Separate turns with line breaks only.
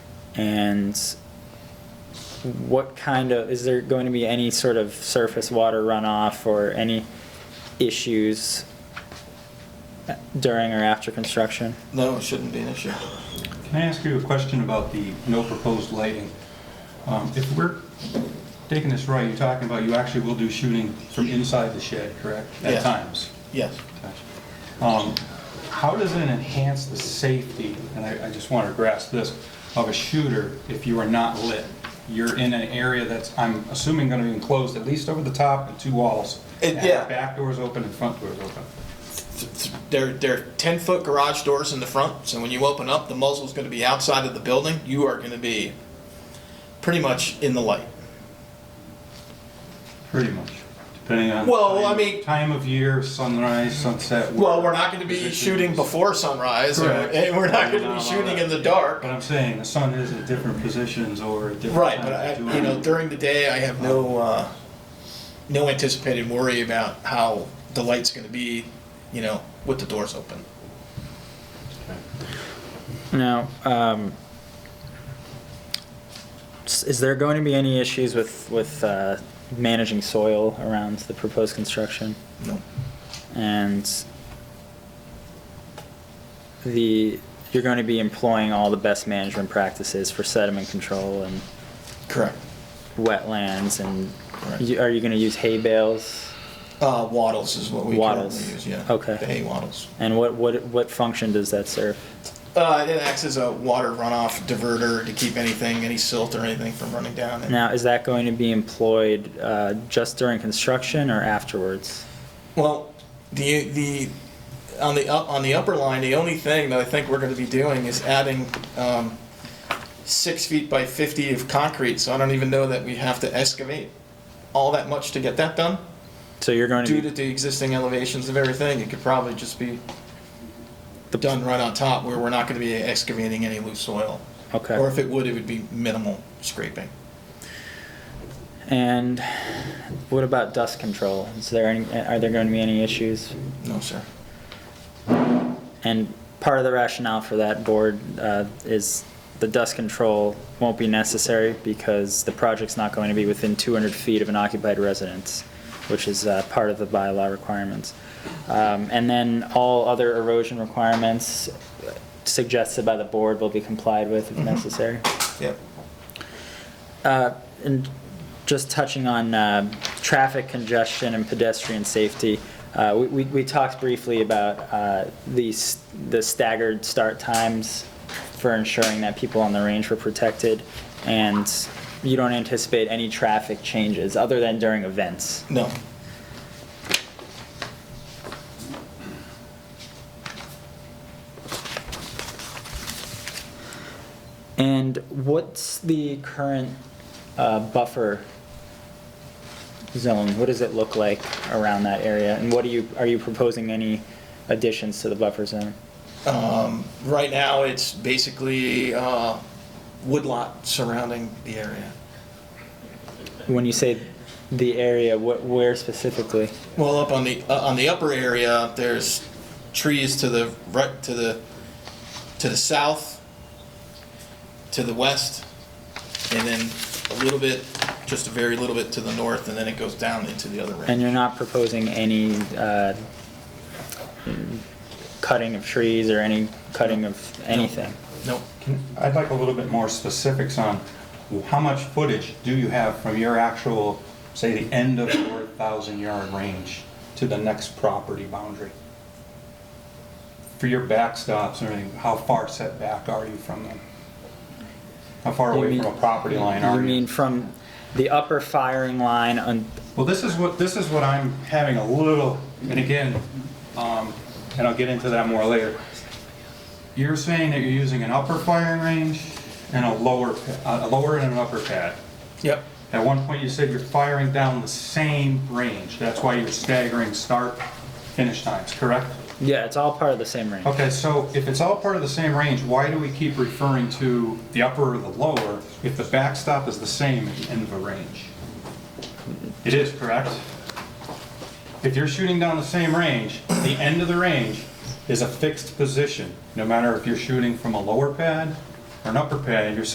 And what kind of, is there going to be any sort of surface water runoff or any issues during or after construction?
No, it shouldn't be an issue.
Can I ask you a question about the no proposed lighting? Um, If we're taking this right, you're talking about you actually will do shooting from inside the shed, correct? At
Yes.
times?
Yes.
Um, How does it enhance the safety, and I I just want to grasp this, of a shooter if you are not lit? You're in an area that's, I'm assuming, going to be enclosed at least over the top and two walls.
It-
and
yeah.
Back doors open and front doors open.
They're, they're 10 foot garage doors in the front, so when you open up, the muzzle's going to be outside of the building. You are going to be pretty much in the light.
Pretty much, depending on.
Well, I
time-
mean-
Time of year, sunrise, sunset.
Well, we're not going to be
positions.
shooting before sunrise, or-
Correct.
and we're not going to
Not
be
all
shooting
that.
in the dark.
But I'm saying, the sun is at different positions or at different.
Right,
times
but I,
of
you know,
doing-
during the day, I have no, uh, no anticipated worry about how the light's going to be, you know, with the doors open.
Now, um, s- is there going to be any issues with, with uh, managing soil around the proposed construction?
No.
And the, you're going to be employing all the best management practices for sediment control and
Correct.
wetlands and
Correct.
you- are you going to use hay bales?
Uh, waddles is what we
Wattles.
currently use, yeah.
Okay.
The hay waddles.
And what, what, what function does that serve?
Uh, it acts as a water runoff diverter to keep anything, any silt or anything from running down. And,
Now, is that going to be employed uh, just during construction or afterwards?
well, the the on the up on the upper line, the only thing that I think we're going to be doing is adding um, six feet by fifty of concrete. So I don't even know that we have to excavate all that much to get that done.
So you're going to be
Due to the existing elevations of everything, it could probably just be
The-
done right on top, where we're not going to be excavating any loose soil.
Okay.
Or if it would, it would be minimal scraping.
and what about dust control? Is there any, are there going to be any issues?
No, sir.
And part of the rationale for that board uh, is the dust control won't be necessary because the project's not going to be within 200 feet of an occupied residence, which is uh, part of the bylaw requirements. Um, And then all other erosion requirements suggested by the board will be complied with if necessary.
Yep.
Uh, And just touching on uh, traffic congestion and pedestrian safety, uh, we- we we talked briefly about uh, the s- the staggered start times for ensuring that people on the range were protected, and you don't anticipate any traffic changes other than during events.
No.
And what's the current uh, buffer zone? What does it look like around that area? And what are you, are you proposing any additions to the buffer zone?
Um, right now, it's basically uh, woodlot surrounding the area.
When you say the area, what, where specifically?
Well, up on the uh, on the upper area, there's trees to the right to the to the south, to the west, and then a little bit, just a very little bit to the north, and then it goes down into the other
And
range.
you're not proposing any uh, cutting of trees or any cutting of anything?
Nope.
Can- I'd like a little bit more specifics on how much footage do you have from your actual, say, the end of your thousand yard range to the next property boundary? For your backstops or anything, how far set back are you from them? How far
You
away
mean-
from a property line
You
are
mean from the upper firing line on,
Well, this is what, this is what I'm having a little, and again, um, and I'll get into that more later. You're saying that you're using an upper firing range and a lower, pa- a lower and an upper pad.
Yep.
At one point, you said you're firing down the same range. That's why you're staggering start, finish times, correct?
yeah, it's all part of the same range.
Okay, so if it's all part of the same range, why do we keep referring to the upper or the lower if the backstop is the same at the end of a range? It is, correct? If you're shooting down the same range, the end of the range is a fixed position, no matter if you're shooting from a lower pad or an upper pad, you're